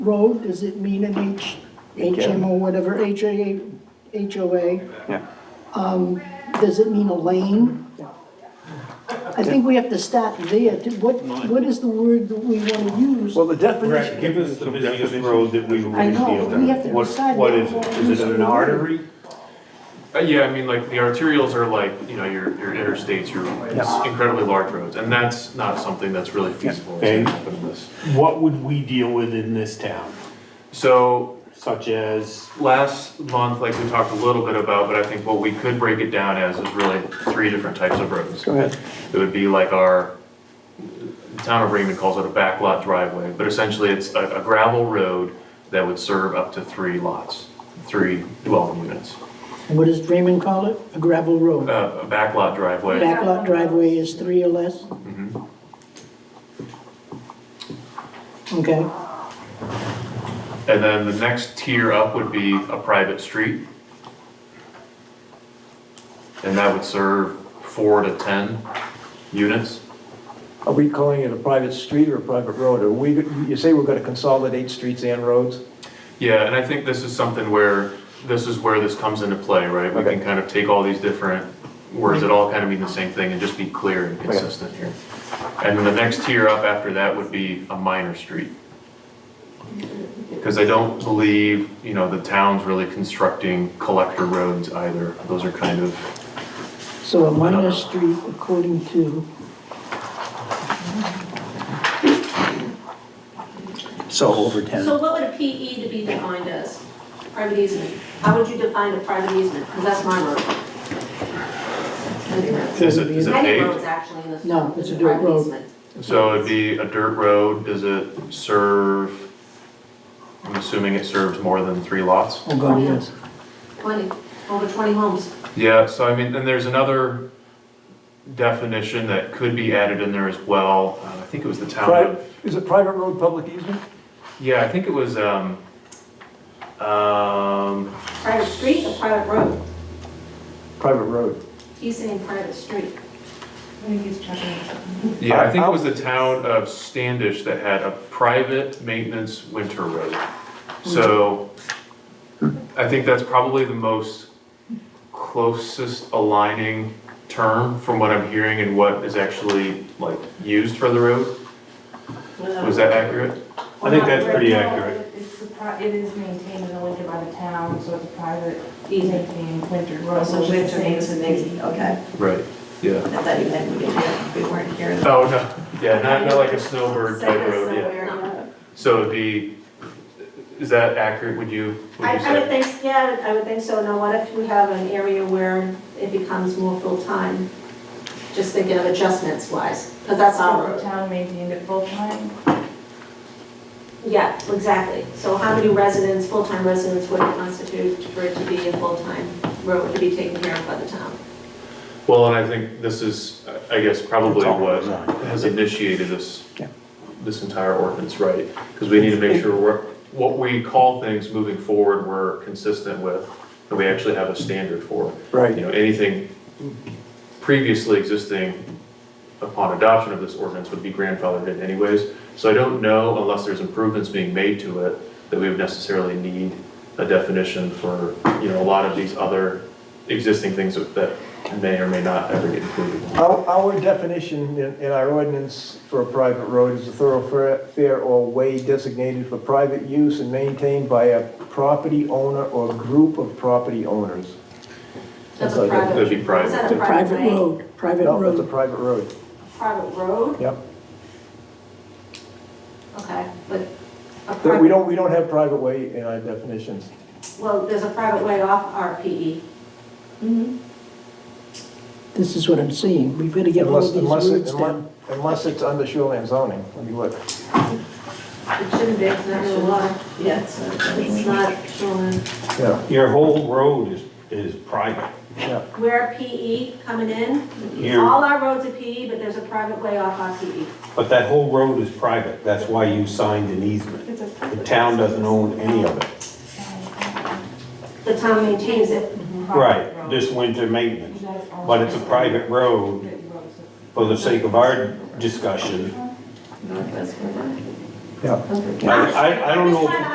road, does it mean an H, HMO, whatever, HA, HOA? Yeah. Does it mean a lane? I think we have to start there, Do- what, what is the word that we wanna use? Well, the Brett, definition, give us the busiest road that we I already know, deal we have with. to What, decide what what is we it? use Is it for an the word. artery? Uh, yeah, I mean, like, the arterials are like, you know, your, your interstates, your incredibly large roads, and that's not something that's really feasible to And- happen in this. What would we deal with in this town, So, such as? last month, like we talked a little bit about, but I think what we could break it down as is really three different types of roads. go ahead. It would be like our, the town of Raymond calls it a backlot driveway, but essentially it's a a gravel road that would serve up to three lots, three dwelling units. What does Draymond call it? A gravel road? Uh, A backlot driveway, Backlot driveway is three or less? Okay, and then the next tier up would be a private street. And that would serve four to 10 units. Are we calling it a private street or a private road? Are we, you say we're gonna consolidate streets and roads? Yeah, and I think this is something where, this is where this comes into play, right? We Okay. can kind of take all these different words that all kind of mean the same thing and just be clear and consistent here. And then the next tier up after that would be a minor street. Because I don't believe, you know, the town's really constructing collector roads either. Those are kind of, so a minor street according to, So over 10. So what would a PE to be defined as? Private easement. How would you define a private easement? Because that's my road. is it, is it Many paved? roads actually in this. No, it's a dirt private road. easement. So it'd be a dirt road, does it serve, I'm assuming it serves more than three lots? oh god, yes. Twenty, over twenty homes. Yeah, so I mean, then there's another definition that could be added in there as well. Uh, I think it was the town Pri- of, Is it private road, public easement? yeah, I think it was, um, um, Private street or private road? Private road. He's saying private street. yeah, I think it was the town of Standish that had a private maintenance winter road. So I think that's probably the most closest aligning term from what I'm hearing and what is actually like used for the road. Was that accurate? I think that's pretty accurate. It's the pri- It is maintained in the winter by the town, so it's a private, maintained winter road. Oh, So which is winter means the a same big, okay, Right, yeah. I thought you meant we didn't hear, we weren't here. Oh, no, yeah, not, not like a snowbird Say type this road, yeah. somewhere, uh, So it'd be, is that accurate, would you, would I, you I would say? think, yeah, I would think so. Now, what if you have an area where it becomes more full-time? Just thinking of adjustments wise, because that's our So the road. town maintained it full time. Yeah, exactly. So how many residents, full-time residents would it constitute for it to be a full-time road to be taken care of by the town? Well, and I think this is, I I guess, probably It's all what design. has initiated this, Yeah. this entire ordinance, right? Because we need to make sure we're, what we call things moving forward, we're consistent with, and we actually have a standard for. Right. You know, anything previously existing upon adoption of this ordinance would be grandfathered in anyways. So I don't know, unless there's improvements being made to it, that we would necessarily need a definition for, you know, a lot of these other existing things that- that may or may not ever get included. Our, our definition in, in our ordinance for a private road is a thoroughfare or way designated for private use and maintained by a property owner or group of property owners. That's That's a like a- private. That'd be private. Is that The a private private way? road, private No, that's a road. private road, Private road? yep. Okay, but a That- We private, don't, we don't have private way in our definitions. well, there's a private way off E. RPE. This is what I'm seeing, we better get all Unless, of these unless, it- words unless down. unless it's under shoreline zoning, let me look. It shouldn't be, it's not a lot, yeah, it's, it's not showing. Yeah, Your whole road is, is private. yeah. We're PE coming in, Here. all our roads are PE, but there's a private way off our E. PE. But that whole road is private, that's why you signed an easement. It's a- The town doesn't own any of it. The town maintains it, Private Right, road. this winter You maintenance, guys own but it's a private road private road, so- for the sake of our discussion. Yeah. I, I- I don't know if.